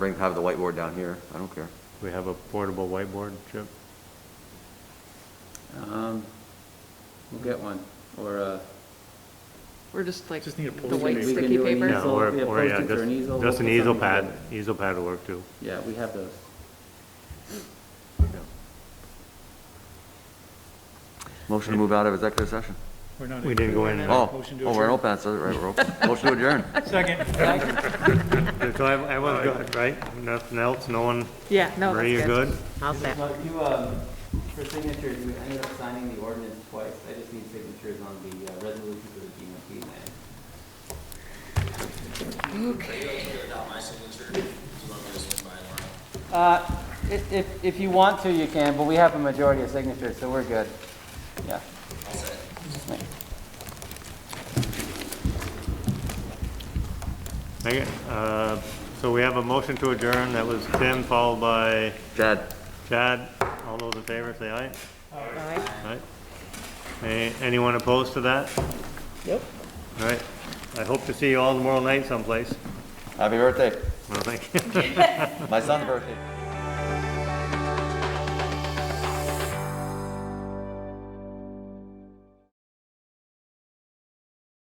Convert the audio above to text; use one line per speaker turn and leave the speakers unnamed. Bring, have the whiteboard down here, I don't care.
We have a portable whiteboard, Chip?
Um, We'll get one, or uh,
We're just like
Just need a
the
poster
white
paper.
sticky
We can
do an
paper.
Yeah,
Easel,
or-
yeah,
or, yeah,
post-its or
just-
an easel, we'll
Just an
put
easel
something
pad,
together.
easel pad will work too.
yeah, we have those.
Motion to move out of executive session.
We're not.
We didn't go in.
Motion
Oh,
to
oh, we're in
adjourn.
open, so, right, we're open. Motion to adjourn.
Second.
So I, I was good, right? Nothing else, no one,
Yeah, no,
Marie, you're
that's
good?
good. I'll say.
You, um, for signatures, you ended up signing the ordinance twice. I just need signatures on the uh, resolution for the GMP land. Uh, if, if, if you want to, you can, but we have a majority of signatures, so we're good. Yeah.
Okay, uh, so we have a motion to adjourn, that was Tim, followed by
Chad?
Chad. All those in favor, say aye.
Aye.
Aye. A- Anyone opposed to that? Yep. All right, I hope to see you all tomorrow night someplace.
Happy birthday.
Well, thank you.
My son's birthday.